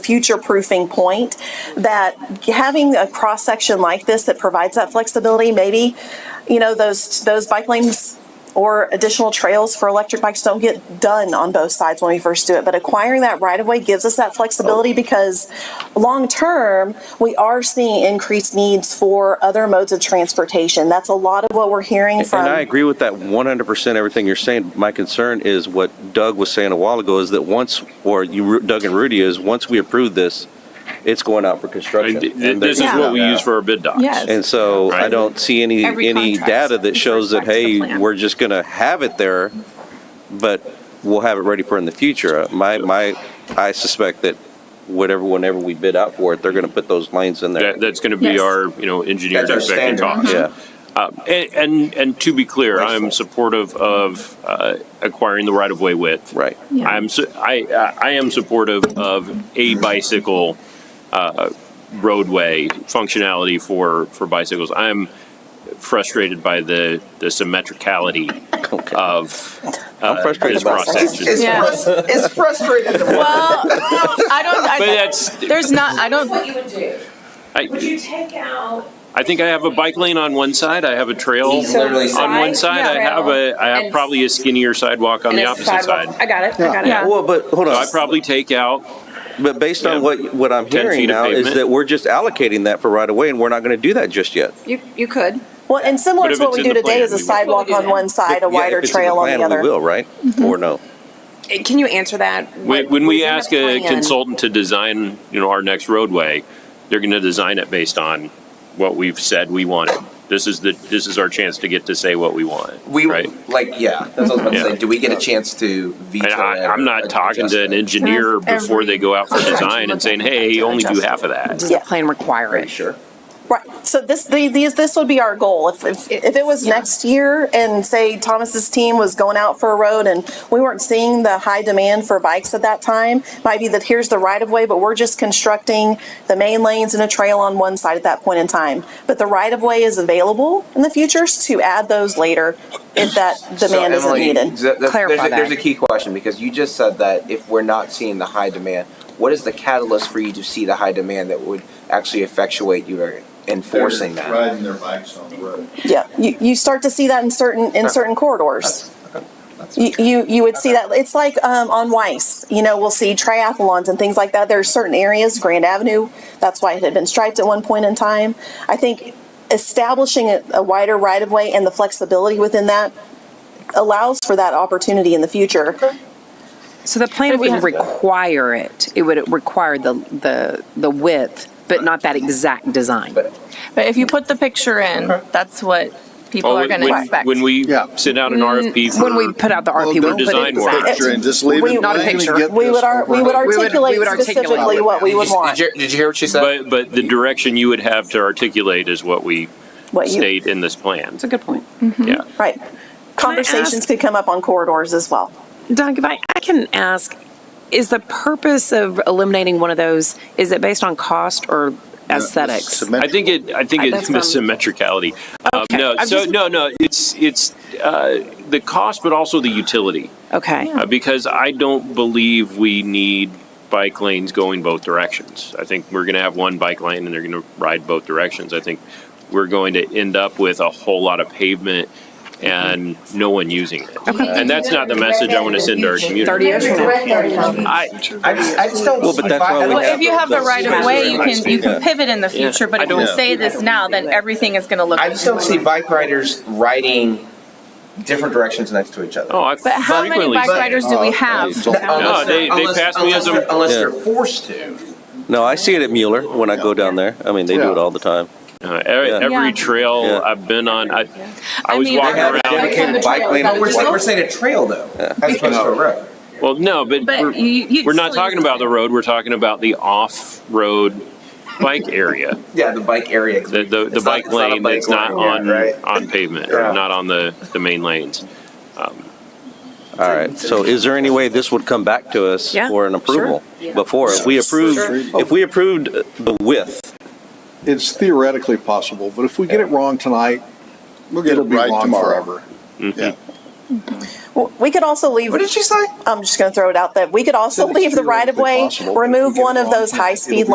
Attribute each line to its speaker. Speaker 1: future proofing point that having a cross section like this that provides that flexibility, maybe, you know, those, those bike lanes or additional trails for electric bikes don't get done on both sides when we first do it. But acquiring that right of way gives us that flexibility because long term, we are seeing increased needs for other modes of transportation. That's a lot of what we're hearing from.
Speaker 2: And I agree with that 100%, everything you're saying. My concern is what Doug was saying a while ago, is that once, or you, Doug and Rudy, is once we approve this, it's going out for
Speaker 3: And
Speaker 2: construction.
Speaker 3: th- th-
Speaker 2: And there's-
Speaker 3: This is what we
Speaker 2: Yeah.
Speaker 3: use for our bid docs.
Speaker 4: Yes.
Speaker 2: And so I
Speaker 3: Right.
Speaker 2: don't see any,
Speaker 4: Every
Speaker 2: any
Speaker 4: contract
Speaker 2: data that shows that,
Speaker 4: reflects the
Speaker 2: hey,
Speaker 4: plan.
Speaker 2: we're just gonna have it there, but we'll have it ready for in the future. Uh, My, my, I suspect that whatever, whenever we bid out for it, they're gonna put those lanes in there.
Speaker 3: That, that's gonna be
Speaker 4: Yes.
Speaker 3: our, you know, engineer's
Speaker 5: That's our
Speaker 3: expected
Speaker 5: standard.
Speaker 3: cost.
Speaker 2: Yeah.
Speaker 3: And, and, and to be clear, I'm supportive of, uh, acquiring the right-of-way width.
Speaker 2: Right.
Speaker 4: Yeah.
Speaker 3: I'm, su- I, I I am supportive of a bicycle, uh, roadway functionality for, for bicycles. I'm frustrated by the, the symmetricality of,
Speaker 2: I'm
Speaker 3: uh,
Speaker 2: frustrated
Speaker 3: this
Speaker 2: about that.
Speaker 3: process.
Speaker 5: It's, it's,
Speaker 4: Yeah.
Speaker 5: frus- it's frustrating. to watch.
Speaker 4: Well, I don't. I,
Speaker 3: But that's,
Speaker 4: there's not. I
Speaker 6: That's what
Speaker 4: don't.
Speaker 6: you would do. Would
Speaker 3: I,
Speaker 6: you take out?
Speaker 3: I think I have a bike lane on one side, I have a trail
Speaker 5: So literally
Speaker 3: on one side,
Speaker 6: side,
Speaker 3: I
Speaker 6: yeah.
Speaker 3: have a, I have
Speaker 6: And-
Speaker 3: probably a skinnier sidewalk on
Speaker 6: and
Speaker 3: the
Speaker 6: a
Speaker 3: opposite side.
Speaker 6: sidewalk. I got it, I got
Speaker 4: Yeah.
Speaker 6: it.
Speaker 2: Well, but, hold
Speaker 3: So
Speaker 2: on.
Speaker 3: I probably take out,
Speaker 2: But based on
Speaker 3: Yeah.
Speaker 2: what, what I'm
Speaker 3: 10
Speaker 2: hearing
Speaker 3: feet of
Speaker 2: now is
Speaker 3: pavement.
Speaker 2: that we're just allocating that for right away, and we're not gonna do that just yet.
Speaker 6: You, you could.
Speaker 1: Well, and similar
Speaker 3: But
Speaker 1: to
Speaker 3: if
Speaker 1: what
Speaker 3: it's
Speaker 1: we
Speaker 3: in
Speaker 1: do
Speaker 3: the
Speaker 1: today
Speaker 3: plan,
Speaker 1: is a
Speaker 3: we will.
Speaker 1: sidewalk on one side, a
Speaker 2: Yeah, if
Speaker 1: wider
Speaker 2: it's in the
Speaker 1: trail on
Speaker 2: plan,
Speaker 1: the other. Mm-hmm.
Speaker 2: We will, right? Or no?
Speaker 6: Eh, Can you answer that?
Speaker 3: when,
Speaker 6: What-
Speaker 3: when
Speaker 6: what's
Speaker 3: we
Speaker 6: in the
Speaker 3: ask a
Speaker 6: plan?
Speaker 3: consultant to design, you know, our next roadway, they're gonna design it based on what we've said we wanted. This is the, this is our chance to get to say what we want,
Speaker 5: We
Speaker 3: right?
Speaker 5: like yeah. That's what I was about
Speaker 3: Yeah.
Speaker 5: to say. Do we get a chance to veto?
Speaker 3: And I,
Speaker 5: that
Speaker 3: I'm
Speaker 5: or
Speaker 3: not talking
Speaker 5: adjust
Speaker 3: to an
Speaker 5: that?
Speaker 3: engineer
Speaker 4: That's
Speaker 3: before
Speaker 4: every
Speaker 3: they go out for
Speaker 4: contract you
Speaker 3: design and
Speaker 4: look
Speaker 3: saying,
Speaker 4: at
Speaker 3: hey,
Speaker 4: to
Speaker 3: only do
Speaker 4: adjust
Speaker 3: half of that.
Speaker 4: Does
Speaker 1: Yeah.
Speaker 4: the plan require
Speaker 5: Are you
Speaker 4: it?
Speaker 5: sure?
Speaker 1: Right. So this the, these this would be our goal. If if, if it was
Speaker 4: Yeah.
Speaker 1: next year and say Thomas's team was going out for a road and we weren't seeing the high demand for bikes at that time, might be that here's the right of way, but we're just constructing the main lanes and a trail on one side at that point in time. But the right of way is available in the future to add those later if that demand isn't
Speaker 5: Emily,
Speaker 1: needed.
Speaker 5: th- th-
Speaker 4: Clarify
Speaker 5: there's, a, there's a
Speaker 4: that.
Speaker 5: key question because you just said that if we're not seeing the high demand, what is the catalyst for you to see the high demand that would actually effectuate you enforcing
Speaker 7: They're
Speaker 5: that?
Speaker 7: Riding their bikes on the road.
Speaker 1: Yeah, you, you start to see that in certain, in certain corridors. You, you, you would see that, it's like, um, on Weiss, you know, we'll see triathlons and things like that. There are certain areas, Grand Avenue, that's why it had been striped at one point in time. I think establishing a, a wider right of way and the flexibility within that allows for that opportunity in the future.
Speaker 4: So the plan would require it. It would require the the the width, but not that exact design.
Speaker 5: But
Speaker 8: But if you put the picture in, that's what people
Speaker 3: Well,
Speaker 8: are going to
Speaker 3: Oh, when-
Speaker 8: expect.
Speaker 3: When we
Speaker 7: Yeah.
Speaker 3: send out an
Speaker 6: Mm,
Speaker 3: RFP for.
Speaker 4: when we put out the RP,
Speaker 7: don't
Speaker 4: we put
Speaker 3: design
Speaker 4: it
Speaker 3: work.
Speaker 4: exact.
Speaker 7: Picture and just leave
Speaker 1: We-
Speaker 7: it
Speaker 1: Not a
Speaker 7: blank and
Speaker 4: picture.
Speaker 7: get
Speaker 1: We would,
Speaker 7: this
Speaker 1: ar-
Speaker 7: over
Speaker 1: we would
Speaker 7: with.
Speaker 4: We would- we
Speaker 1: articulate
Speaker 4: would articulate
Speaker 1: specifically
Speaker 4: it.
Speaker 1: what we
Speaker 5: did,
Speaker 1: would
Speaker 5: you,
Speaker 1: want.
Speaker 5: Did, you, did you hear what she said?
Speaker 3: But, but the direction you would have to articulate is what we
Speaker 1: What you-
Speaker 3: state in this plan.
Speaker 4: That's a good point.
Speaker 3: Yeah.
Speaker 1: Right. Conversations could come up on corridors as well.
Speaker 4: Doug, if I, I can ask, is the purpose of eliminating one of those, is it based on cost or
Speaker 3: Uh,
Speaker 4: aesthetics?
Speaker 7: Cement-
Speaker 3: I think it, I think
Speaker 4: I-
Speaker 3: it's
Speaker 4: that's what
Speaker 3: the
Speaker 4: I'm-
Speaker 3: symmetricality. Um,
Speaker 4: Okay,
Speaker 3: No,
Speaker 4: I'm
Speaker 3: so,
Speaker 4: just-
Speaker 3: no, no, it's, it's uh, the cost, but also the utility.
Speaker 4: Okay.
Speaker 3: Uh, Because I don't believe we need bike lanes going both directions. I think we're going to have one bike lane and they're going to ride both directions. I think we're going to end up with a whole lot of pavement and no one using it. And that's not the message I want to send to our community.
Speaker 4: 30 years from now.
Speaker 3: I,
Speaker 5: I just, I just don't.
Speaker 2: Well, but
Speaker 5: see
Speaker 2: that's
Speaker 5: why-
Speaker 2: why
Speaker 5: I
Speaker 2: we
Speaker 5: don't-
Speaker 8: well, if you have the right of way, you can you
Speaker 2: Yeah.
Speaker 8: can pivot in the
Speaker 3: Yeah.
Speaker 8: future. But
Speaker 3: I
Speaker 8: if you
Speaker 3: don't-
Speaker 8: say this now, then everything is going to look.
Speaker 5: I just don't see bike riders riding different directions next to each other.
Speaker 3: oh, I
Speaker 8: But how many
Speaker 3: frequently
Speaker 8: bike
Speaker 3: say-
Speaker 8: riders do we have?
Speaker 7: Oh,
Speaker 5: Unless
Speaker 3: they-
Speaker 5: they're-
Speaker 3: they
Speaker 5: unless-
Speaker 3: pass me
Speaker 5: unless
Speaker 3: as a-
Speaker 5: they're- Unless
Speaker 2: Yeah.
Speaker 5: they're forced to.
Speaker 2: No, I see it at Mueller when I go down there. I mean, they do it all the time.
Speaker 3: Uh, every,
Speaker 2: Yeah.
Speaker 3: every
Speaker 8: Yeah.
Speaker 3: trail
Speaker 2: Yeah.
Speaker 3: I've been on, I, I
Speaker 8: I
Speaker 3: was
Speaker 8: mean,
Speaker 3: walking
Speaker 8: I-
Speaker 5: Have a
Speaker 3: around.
Speaker 5: dedicated bike lane.
Speaker 6: But
Speaker 5: We're,
Speaker 6: we're-
Speaker 5: we're saying a trail though, as opposed
Speaker 3: Oh.
Speaker 5: to a road.
Speaker 3: Well, no, but,
Speaker 8: But
Speaker 3: we're,
Speaker 8: you- you-
Speaker 3: we're not
Speaker 8: still
Speaker 3: talking
Speaker 8: use
Speaker 3: about the road. We're talking about the off-road bike area,
Speaker 5: Yeah, the bike area.
Speaker 3: the the, the
Speaker 5: It's not-
Speaker 3: bike
Speaker 5: it's not a
Speaker 3: lane
Speaker 5: bike
Speaker 3: that's not
Speaker 5: lane,
Speaker 3: on
Speaker 5: right.
Speaker 3: on pavement,
Speaker 5: Yeah.
Speaker 3: or not on the the main lanes.
Speaker 2: All right, so is there any way this would come back to us
Speaker 4: Yeah,
Speaker 2: for an approval before? If we approved, if we approved the width,
Speaker 9: it's theoretically possible, but if we get it wrong tonight,
Speaker 7: We'll get it
Speaker 9: it'll be
Speaker 7: right
Speaker 9: wrong
Speaker 7: tomorrow.
Speaker 9: forever. Yeah.
Speaker 1: W- We could also leave.
Speaker 5: What did you say?
Speaker 1: I'm just going to throw it out that we could also
Speaker 7: Said it's
Speaker 1: leave the right of
Speaker 7: theoretically
Speaker 1: way,
Speaker 7: possible, but if we
Speaker 1: remove
Speaker 7: get it
Speaker 1: one of
Speaker 7: wrong,
Speaker 1: those
Speaker 7: it'll
Speaker 1: high speed
Speaker 7: be